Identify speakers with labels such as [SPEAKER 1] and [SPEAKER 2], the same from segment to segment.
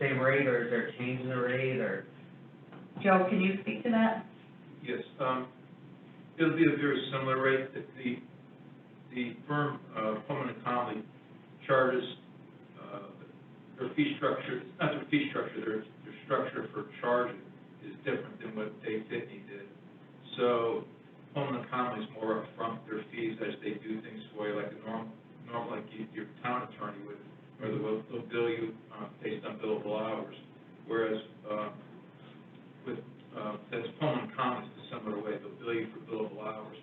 [SPEAKER 1] same rate, or is there a change in the rate, or?
[SPEAKER 2] Joe, can you speak to that?
[SPEAKER 3] Yes, um, it'll be a very similar rate that the, the firm, uh, Pullman and Conley charges, uh, their fee structure, it's not their fee structure, their, their structure for charging is different than what Dave Pitney did. So Pullman and Conley's more upfront their fees as they do things for you, like a norm, norm, like you- your town attorney would, where they'll, they'll bill you, uh, based on billable hours. Whereas, uh, with uh, that's Pullman Commons in a similar way, they'll bill you for billable hours,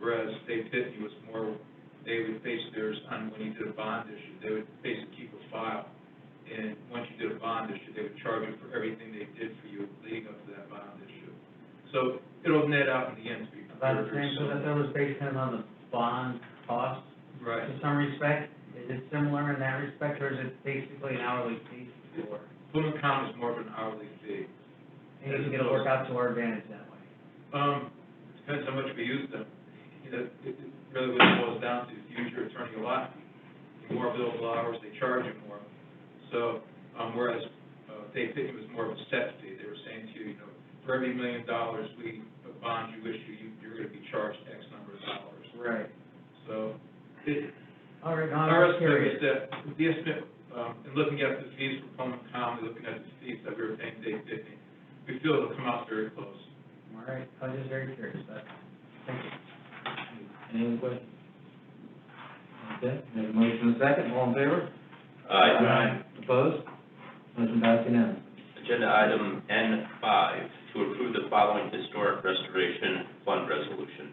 [SPEAKER 3] whereas State Pitney was more, they would base theirs on when you did a bond issue, they would basically keep a file, and once you did a bond issue, they would charge you for everything they did for you leading up to that bond issue. So it'll net out in the end to be
[SPEAKER 1] About the
[SPEAKER 3] very,
[SPEAKER 1] same,
[SPEAKER 3] very
[SPEAKER 1] so that
[SPEAKER 3] similar.
[SPEAKER 1] that was based kind of on the bond cost,
[SPEAKER 3] Right.
[SPEAKER 1] to some respect, is it similar in that respect, or is it basically an hourly fee for?
[SPEAKER 3] Pullman Commons is more of an hourly fee.
[SPEAKER 1] And it'll work out to our advantage that way.
[SPEAKER 3] Um, depends how much we use them. You know, it it really what it boils down to, is you use your attorney a lot, the more billable hours, they charge you more. So, um, whereas, uh, they think it was more of a set fee, they were saying to you, you know, for every million dollars we, of bond you issue, you, you're gonna be charged X number of dollars.
[SPEAKER 1] Right.
[SPEAKER 3] So, it,
[SPEAKER 1] All right, now I'm
[SPEAKER 3] our
[SPEAKER 1] just
[SPEAKER 3] estimate is
[SPEAKER 1] curious.
[SPEAKER 3] that, the estimate, um, and looking at the fees for Pullman County, looking at the fees that we were paying Dave Pitney, we feel it'll come out very close.
[SPEAKER 1] All right, I was just very curious, but, thank you.
[SPEAKER 4] Any other questions? Okay, we have a motion and a second, all in favor? Opposed? Motion passed unanimously.
[SPEAKER 5] Agenda item N five, to approve the following historic restoration fund resolution.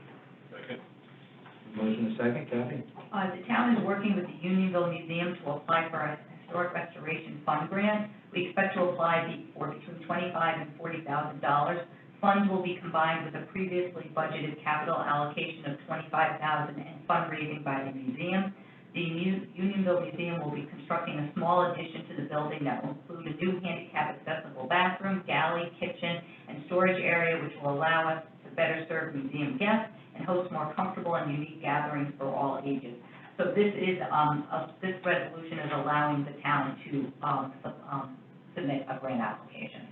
[SPEAKER 4] Motion and a second, Kathy?
[SPEAKER 2] Uh, the town is working with the Unionville Museum to apply for a historic restoration fund grant. We expect to apply be- for between twenty-five and forty thousand dollars. Funds will be combined with a previously budgeted capital allocation of twenty-five thousand dollars and fundraising by the museum. The Mu- Unionville Museum will be constructing a small addition to the building that will include a new handicap accessible bathroom, galley, kitchen, and storage area, which will allow us to better serve museum guests and host more comfortable and unique gatherings for all ages. So this is, um, a- this resolution is allowing the town to, um, sub- um, submit a grant application.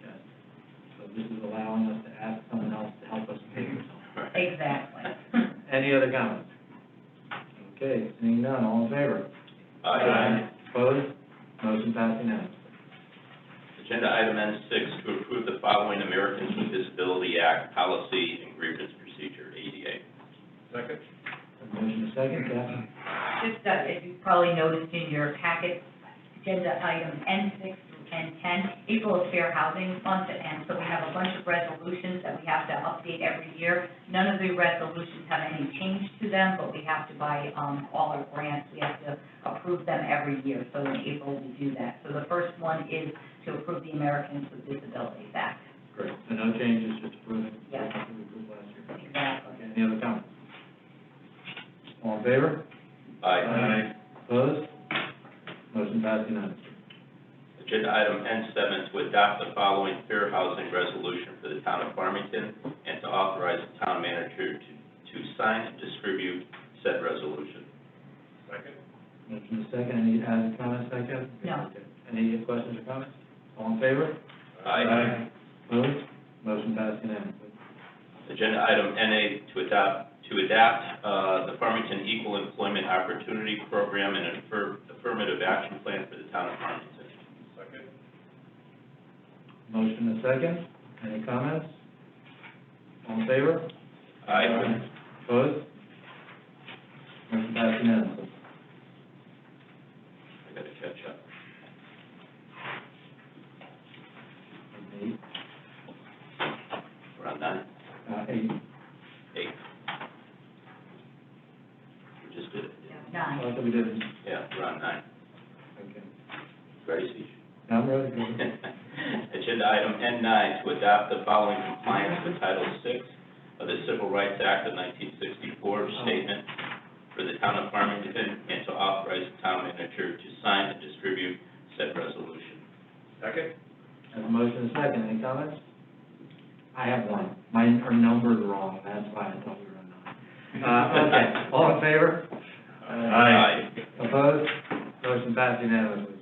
[SPEAKER 4] Yes. So this is allowing us to ask someone else to help us pay for something.
[SPEAKER 2] Exactly.
[SPEAKER 4] Any other comments? Okay, seeing none, all in favor?
[SPEAKER 5] Aye.
[SPEAKER 4] Opposed? Motion passed unanimously.
[SPEAKER 5] Agenda item N six, to approve the following Americans with Disability Act policy and grievance procedure, ADA.
[SPEAKER 3] Second?
[SPEAKER 4] Motion and a second, Kathy?
[SPEAKER 2] Just, uh, as you probably noticed in your packet, agenda item N six through N ten, April is Fair Housing Month, and so we have a bunch of resolutions that we have to update every year. None of the resolutions have any change to them, but we have to buy, um, all our grants, we have to approve them every year, so in April we do that. So the first one is to approve the Americans with Disabilities Act.
[SPEAKER 4] Great. So no changes, just approving?
[SPEAKER 2] Yeah.
[SPEAKER 4] What we approved last year.
[SPEAKER 2] Exactly.
[SPEAKER 4] Okay, any other comments? All in favor?
[SPEAKER 5] Aye.
[SPEAKER 4] Opposed? Motion passed unanimously.
[SPEAKER 5] Agenda item N seven, to adopt the following fair housing resolution for the town of Farmington and to authorize the town manager to, to sign and distribute said resolution.
[SPEAKER 3] Second?
[SPEAKER 4] Motion is second, any added comments, I guess?
[SPEAKER 2] No.
[SPEAKER 4] Okay. Any questions or comments? All in favor? Opposed? Motion passed unanimously.
[SPEAKER 5] Agenda item NA to adopt, to adapt uh, the Farmington Equal Employment Opportunity Program and an affir- affirmative action plan for the town of Farmington.
[SPEAKER 3] Second?
[SPEAKER 4] Motion is second, any comments? All in favor?
[SPEAKER 5] Uh, Aye.
[SPEAKER 4] Opposed? Motion passed unanimously.
[SPEAKER 5] I gotta catch up.
[SPEAKER 4] Eight,
[SPEAKER 5] We're on nine,
[SPEAKER 4] uh, eight,
[SPEAKER 5] eight. We just did it.
[SPEAKER 2] Nine.
[SPEAKER 4] that's what we did.
[SPEAKER 5] Yeah, we're on nine.
[SPEAKER 4] Okay.
[SPEAKER 5] Ready, Steve?
[SPEAKER 4] Now, I'm ready.
[SPEAKER 5] Agenda item N nine, to adopt the following compliance with Title VI of the Civil Rights Act of nineteen sixty-four statement for the town of Farmington, and to authorize the town manager to sign and distribute said resolution.
[SPEAKER 3] Second?
[SPEAKER 4] Have a motion is second, any comments? I have one, mine, our number's wrong, that's why I thought we were on nine. Uh, okay, all in favor? Aye. Opposed? Motion passed unanimously.